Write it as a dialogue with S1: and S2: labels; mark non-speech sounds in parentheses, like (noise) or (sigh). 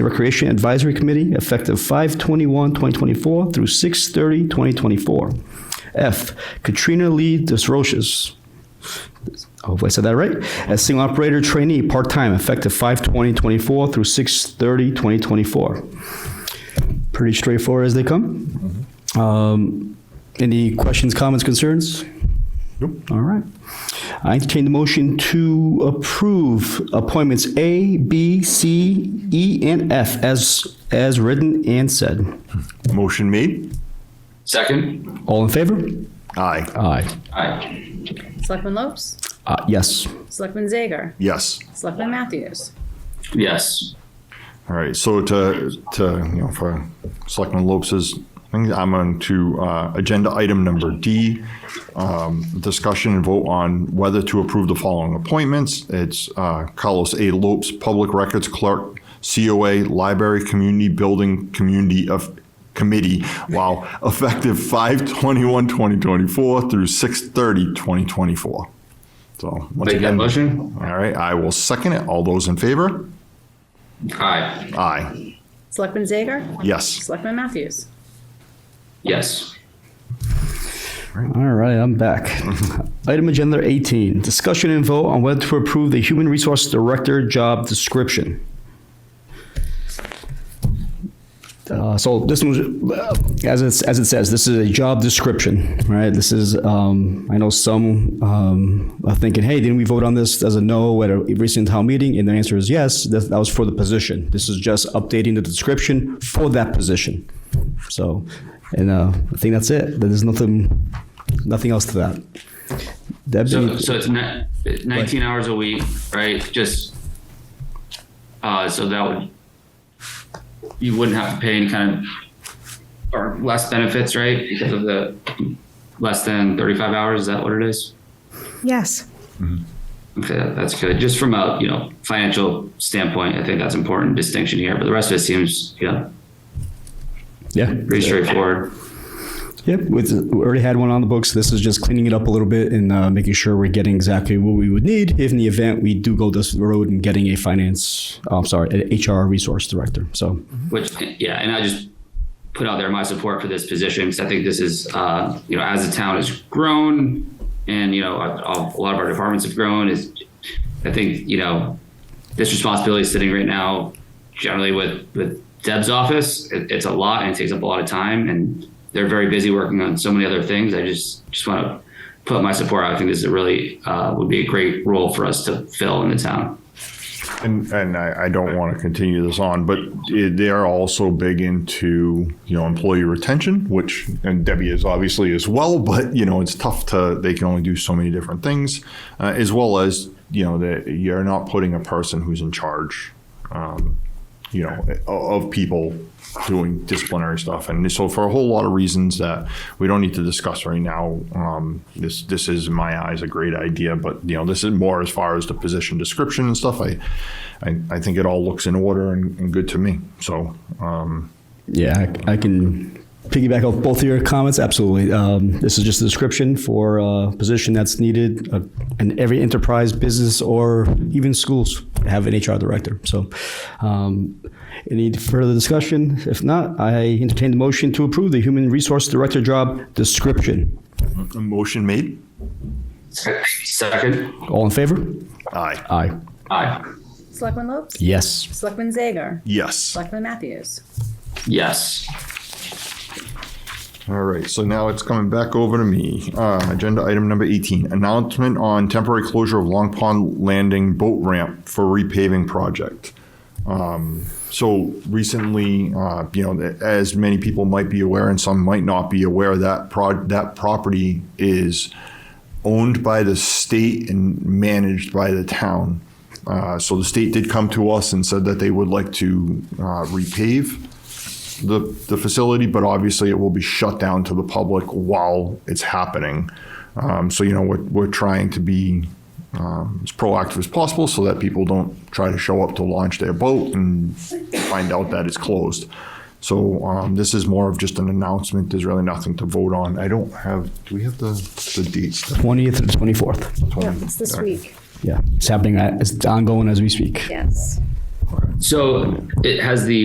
S1: the Recreation Advisory Committee effective 5/21/2024 through 6/30/2024. F, Katrina Lee DesRoches, hopefully I said that right, as single operator trainee, part-time, effective 5/20/24 through 6/30/2024. Pretty straightforward as they come. Um, Any questions, comments, concerns? All right. I entertain the motion to approve appointments A, B, C, E, and F as, as written and said.
S2: Motion made.
S3: Second.
S1: All in favor?
S2: Aye.
S1: Aye.
S3: Aye.
S4: Selectman Lopes?
S1: Uh, yes.
S4: Selectman Zager?
S2: Yes.
S4: Selectman Matthews?
S3: Yes.
S2: All right. So to, to, you know, for Selectman Lopes's, thing, I'm on to, uh, agenda item number D. Um, discussion and vote on whether to approve the following appointments. It's, uh, Carlos A. Lopes, Public Records Clerk, COA, Library Community Building Community of Committee, wow, (laughs) effective 5/21/2024 through 6/30/2024. So. once
S3: Make that
S2: again,
S3: motion.
S2: All right, I will second it. All those in favor?
S3: Aye.
S2: Aye.
S4: Selectman Zager?
S2: Yes.
S4: Selectman Matthews?
S3: Yes.
S1: All right, I'm back. Item agenda 18, discussion and vote on whether to approve the human resource director job description. Uh, so this was, uh, as it, as it says, this is a job description, right? This is, um, I know some, um, are thinking, hey, didn't we vote on this as a no at a recent town meeting? And the answer is yes, that, that was for the position. This is just updating the description for that position. So, and, uh, I think that's it. There's nothing, nothing else to that.
S3: So,
S1: Debbie,
S3: so it's ni- 19 hours a week, right? Just, uh, so that would, you wouldn't have to pay any kind of, or less benefits, right? Because of the less than 35 hours, is that what it is?
S5: Yes.
S3: Okay, that- that's good. Just from a, you know, financial standpoint, I think that's important distinction here, but the rest of it seems, you know,
S1: yeah.
S3: pretty straightforward.
S1: Yep, with, we already had one on the books. This is just cleaning it up a little bit and uh, making sure we're getting exactly what we would need if in the event we do go this road and getting a finance, oh, I'm sorry, an HR resource director. So,
S3: Which, yeah, and I just put out there my support for this position because I think this is, uh, you know, as the town has grown and, you know, a, a lot of our departments have grown, is I think, you know, this responsibility is sitting right now generally with, with Deb's office. It, it's a lot and it takes up a lot of time and they're very busy working on so many other things. I just, just want to put my support out. I think this is a really, uh, would be a great role for us to fill in the town.
S2: And, and I, I don't want to continue this on, but it, they are also big into, you know, employee retention, which, and Debbie is obviously as well, but, you know, it's tough to, they can only do so many different things, uh, as well as, you know, that you're not putting a person who's in charge, um, you know, o- of people doing disciplinary stuff. And so for a whole lot of reasons that we don't need to discuss right now, um, this, this is in my eyes a great idea, but you know, this is more as far as the position description and stuff. I, I, I think it all looks in order and, and good to me. So, um,
S1: yeah, I, I can piggyback off both of your comments. Absolutely. Um, this is just a description for a position that's needed uh, in every enterprise, business, or even schools have an HR director. So, um, any further discussion? If not, I entertain the motion to approve the human resource director job description.
S2: a motion made.
S3: Second?
S1: All in favor?
S2: Aye.
S1: Aye.
S3: Aye.
S4: Selectman Lopes?
S1: Yes.
S4: Selectman Zager?
S2: Yes.
S4: Selectman Matthews?
S3: Yes.
S2: All right, so now it's coming back over to me. Uh, Agenda item number 18, announcement on temporary closure of Long Pond Landing boat ramp for repaving project. Um, So recently, uh, you know, as many people might be aware and some might not be aware, that prod, that property is owned by the state and managed by the town. Uh, So the state did come to us and said that they would like to uh, repave the, the facility, but obviously it will be shut down to the public while it's happening. Um, so, you know, we're, we're trying to be um, as proactive as possible so that people don't try to show up to launch their boat and find out that it's closed. So um, this is more of just an announcement. There's really nothing to vote on. I don't have, do we have the, the dates? The
S1: 20th to the 24th.
S5: Yeah, it's this week.
S1: Yeah, it's happening. uh, It's ongoing as we speak.
S5: Yes.
S3: So it has the